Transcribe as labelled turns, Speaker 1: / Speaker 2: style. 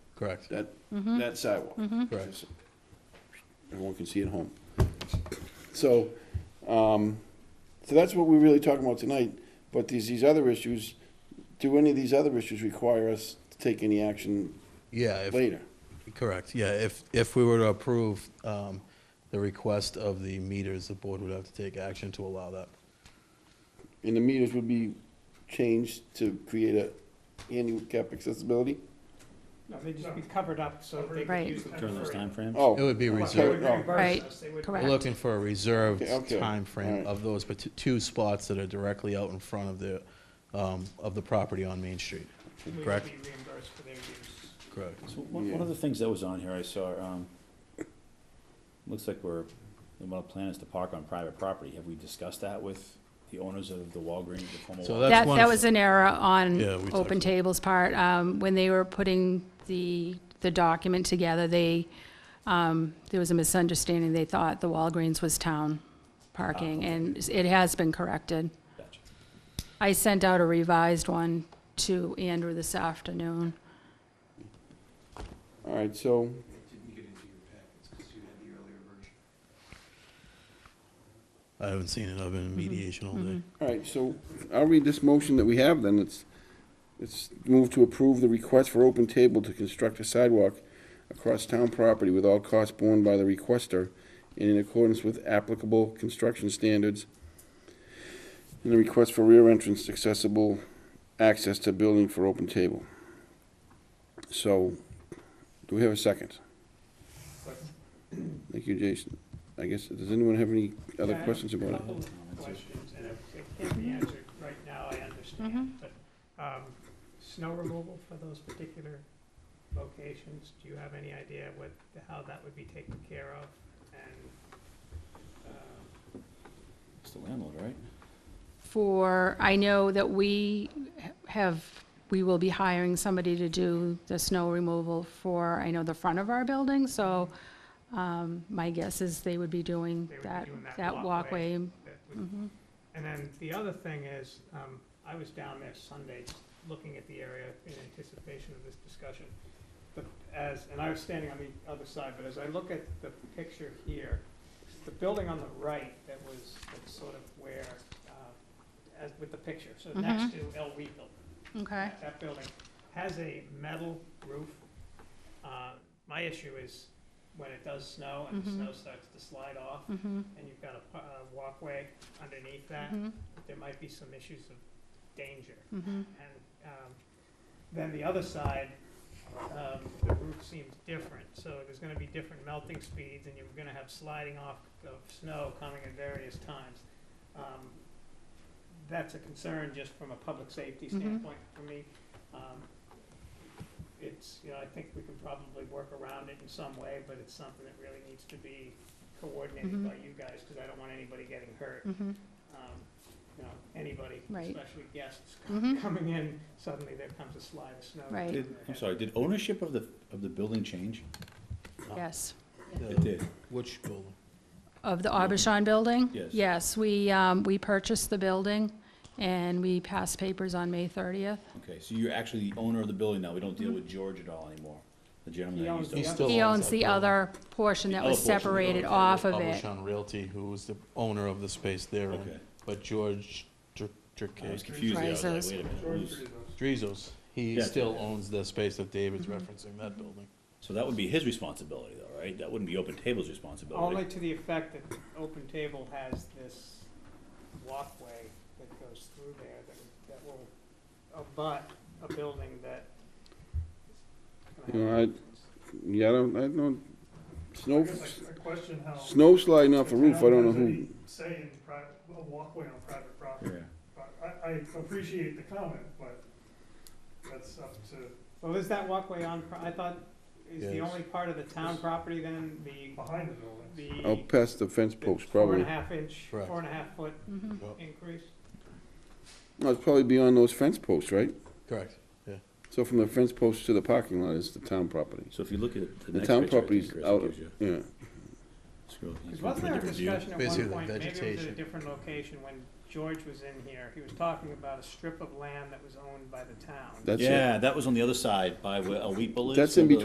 Speaker 1: Correct.
Speaker 2: that, that sidewalk.
Speaker 1: Correct.
Speaker 2: Everyone can see at home. So, um, so that's what we're really talking about tonight, but these, these other issues, do any of these other issues require us to take any action
Speaker 1: Yeah, if,
Speaker 2: later?
Speaker 1: correct. Yeah, if, if we were to approve um, the request of the meters, the board would have to take action to allow that.
Speaker 2: And the meters would be changed to create a handicap accessibility?
Speaker 3: No, they'd just be covered up so that they could
Speaker 4: Right.
Speaker 3: use them.
Speaker 5: During those
Speaker 3: for-
Speaker 5: timeframes?
Speaker 2: Oh.
Speaker 1: It would be
Speaker 3: Well, they
Speaker 2: reserved.
Speaker 3: would
Speaker 1: reserved,
Speaker 2: Right,
Speaker 3: reimburse
Speaker 4: Right.
Speaker 3: us, they would-
Speaker 1: we're
Speaker 4: Correct.
Speaker 1: looking for a reserved
Speaker 2: Okay, okay.
Speaker 1: time frame
Speaker 2: Alright.
Speaker 1: of those parti- two spots that are directly out in front of the, um, of the property on Main Street.
Speaker 3: We would
Speaker 1: Correct.
Speaker 3: be reimbursed for their use.
Speaker 1: Correct.
Speaker 5: So one, one of the things that was on here I saw, um, looks like we're, the well plan is to park on private property. Have we discussed that with the owners of the Walgreens, the former
Speaker 1: So
Speaker 5: Walgreens?
Speaker 1: that's
Speaker 4: That,
Speaker 1: one
Speaker 4: that
Speaker 1: of-
Speaker 4: was an error
Speaker 1: Yeah, we
Speaker 4: on
Speaker 1: talked
Speaker 4: Open
Speaker 1: about-
Speaker 4: Table's part. Um, When they were putting the, the document together, they, um, there was a misunderstanding. They thought the Walgreens was town
Speaker 1: Oh.
Speaker 4: parking, and it has been corrected.
Speaker 5: Gotcha.
Speaker 4: I sent out a revised one to Andrew this afternoon.
Speaker 2: All right, so,
Speaker 6: didn't get into your packets because you had the earlier version.
Speaker 1: I haven't seen it. I've been
Speaker 4: Mm-hmm.
Speaker 1: in mediation all day.
Speaker 2: all right, so I'll read this motion that we have then. It's, it's move to approve the request for open table to construct a sidewalk across town property with all costs borne by the requester and in accordance with applicable construction standards. And the request for rear entrance accessible access to building for open table. So, do we have a second? Thank you, Jason. I guess, does anyone have any other
Speaker 3: Yeah, I have
Speaker 2: questions
Speaker 3: a
Speaker 2: about it?
Speaker 3: couple of Questions, and if it can't be answered right now, I understand,
Speaker 4: Mm-hmm.
Speaker 3: but, um, snow removal for those particular locations, do you have any idea what, how that would be taken care of? And, um,
Speaker 5: It's the landlord, right?
Speaker 4: For, I know that we have, we will be hiring somebody to do the snow removal for, I know, the front of our building, so um, my guess is they would be doing
Speaker 3: They would be
Speaker 4: that,
Speaker 3: doing that
Speaker 4: that
Speaker 3: walkway.
Speaker 4: walkway. Mm-hmm.
Speaker 3: that would- And then the other thing is, um, I was down there Sunday, looking at the area in anticipation of this discussion. But as, and I was standing on the other side, but as I look at the picture here, the building on the right that was, that's sort of where, uh, as with the picture, so next to El Weeble,
Speaker 4: Okay,
Speaker 3: that building has a metal roof. Uh, My issue is when it does snow and the
Speaker 4: Mhm.
Speaker 3: snow starts to slide off,
Speaker 4: mhm,
Speaker 3: and you've got a pu- a walkway underneath that,
Speaker 4: mhm,
Speaker 3: there might be some issues of danger.
Speaker 4: mhm.
Speaker 3: And um, then the other side, um, the roof seems different, so there's gonna be different melting speeds, and you're gonna have sliding off of snow coming at various times. Um, That's a concern just from a public safety
Speaker 4: Mhm.
Speaker 3: standpoint for me. Um, It's, you know, I think we can probably work around it in some way, but it's something that really needs to be coordinated
Speaker 4: Mhm.
Speaker 3: by you guys, because I don't want anybody getting hurt
Speaker 4: mhm.
Speaker 3: um, you know, anybody,
Speaker 4: Right.
Speaker 3: especially guests c-
Speaker 4: Mhm.
Speaker 3: coming in, suddenly there comes a slide of snow.
Speaker 4: Right.
Speaker 5: Did- I'm sorry, did ownership of the, of the building change?
Speaker 4: Yes. Mm-hmm.
Speaker 5: It did.
Speaker 1: Which building?
Speaker 4: Of the Aubuchon building?
Speaker 5: Yes.
Speaker 4: we, um, we purchased the building, and we passed papers on May 30th.
Speaker 5: Okay, so you're actually the owner of the building now. We don't deal with George at all anymore, the
Speaker 3: Mm-hmm. He
Speaker 5: gentleman that
Speaker 3: owns
Speaker 5: used to.
Speaker 3: the
Speaker 1: He's
Speaker 3: other-
Speaker 1: still
Speaker 4: He
Speaker 1: owns
Speaker 4: owns
Speaker 1: that
Speaker 4: the
Speaker 1: building.
Speaker 4: other portion
Speaker 5: The
Speaker 4: that
Speaker 5: other
Speaker 4: was
Speaker 5: portion of the building.
Speaker 4: separated off of it.
Speaker 1: Publishon Realty, who was the owner of the space there,
Speaker 5: Okay.
Speaker 1: but George Dr-
Speaker 5: I
Speaker 1: Drake,
Speaker 5: was confused. there. I was like,
Speaker 4: Rises.
Speaker 5: wait a minute, who's-
Speaker 1: Drizos, he
Speaker 5: Yeah.
Speaker 1: still owns the space that David's referencing, that building.
Speaker 5: So that would be his responsibility though, right? That wouldn't be Open Table's responsibility.
Speaker 3: Only to the effect that Open Table has this walkway that goes through there that, that will abut a building that. is gonna
Speaker 2: You know,
Speaker 3: have-
Speaker 2: Yeah, I don't, I don't,
Speaker 7: I
Speaker 2: snow,
Speaker 7: guess I I question how.
Speaker 2: snow sliding off a roof, I don't know who,
Speaker 7: Say in private, a walkway on private
Speaker 5: Yeah.
Speaker 7: property. I, I appreciate the comment, but that's up to,
Speaker 3: Well, is that walkway on, pro- I thought, is the
Speaker 1: Yes.
Speaker 3: only part of the town property then, the,
Speaker 7: behind the buildings.
Speaker 3: the.
Speaker 2: out past the fence
Speaker 3: the
Speaker 2: post,
Speaker 3: Four and
Speaker 2: probably.
Speaker 3: a half inch,
Speaker 1: Oh, Correct.
Speaker 3: four and a half foot
Speaker 4: Mhm.
Speaker 3: increase?
Speaker 2: No, it's probably beyond those fence posts, right?
Speaker 1: Correct.
Speaker 2: So from the fence post to the parking lot is the town property.
Speaker 5: So if you look at the
Speaker 2: The
Speaker 5: next
Speaker 2: town
Speaker 5: picture, I
Speaker 2: property's
Speaker 5: think Chris
Speaker 2: out,
Speaker 5: gives you.
Speaker 2: yeah.
Speaker 5: scroll- he's
Speaker 3: Because wasn't
Speaker 5: going
Speaker 3: there
Speaker 5: for a
Speaker 3: a
Speaker 5: different view.
Speaker 3: discussion at
Speaker 1: Basically,
Speaker 3: one point, maybe it was at a
Speaker 1: vegetation.
Speaker 3: different location, when George was in here, he was talking about a strip of land that was owned by the town.
Speaker 2: That's it.
Speaker 5: Yeah, that was on the other side by where a wheat is.
Speaker 2: That's in
Speaker 5: so the-